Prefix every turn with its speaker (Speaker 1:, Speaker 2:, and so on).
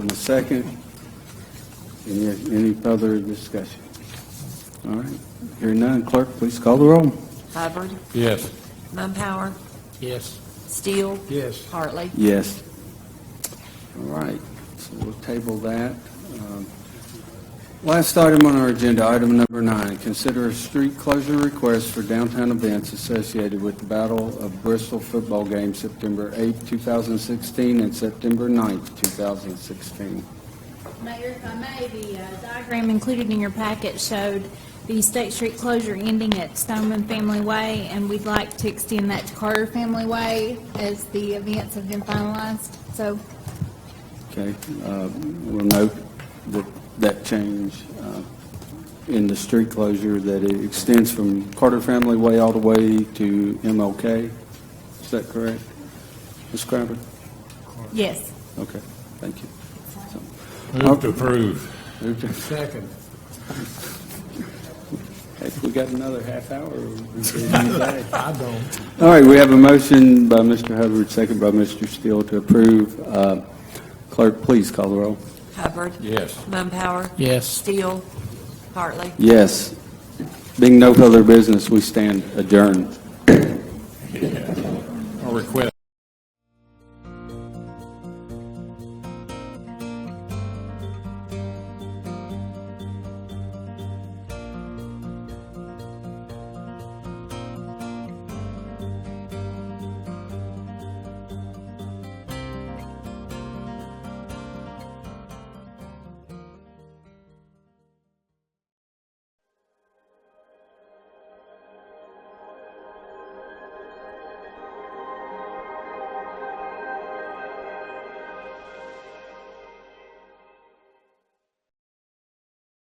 Speaker 1: and a second. Any, any further discussion? All right, hearing none, clerk, please call the roll.
Speaker 2: Hubbard,
Speaker 3: Yes.
Speaker 2: Mumpower,
Speaker 3: Yes.
Speaker 2: Steele,
Speaker 3: Yes.
Speaker 2: Hartley.
Speaker 1: Yes. All right, so we'll table that. Um, Last item on our agenda, item number nine, consider a street closure request for downtown events associated with the Battle of Bristol football game September 8, 2016 and September 9, 2016.
Speaker 4: Mayor, if I may, the uh, diagram included in your packet showed the State Street closure ending at Stoneman Family Way, and we'd like to extend that to Carter Family Way as the events have been finalized. So
Speaker 1: Okay, uh, we'll note that, that change uh, in the street closure, that it extends from Carter Family Way all the way to MLK. Is that correct? Ms. Crabtree?
Speaker 4: Yes.
Speaker 1: Okay, thank you.
Speaker 3: Move to approve.
Speaker 5: Second.
Speaker 1: If we got another half hour, we can do that.
Speaker 5: I don't.
Speaker 1: All right, we have a motion by Mr. Hubbard, second by Mr. Steele to approve. Uh, Clerk, please call the roll.
Speaker 2: Hubbard,
Speaker 3: Yes.
Speaker 2: Mumpower,
Speaker 5: Yes.
Speaker 2: Steele, Hartley.
Speaker 1: Yes. Being no further business, we stand adjourned.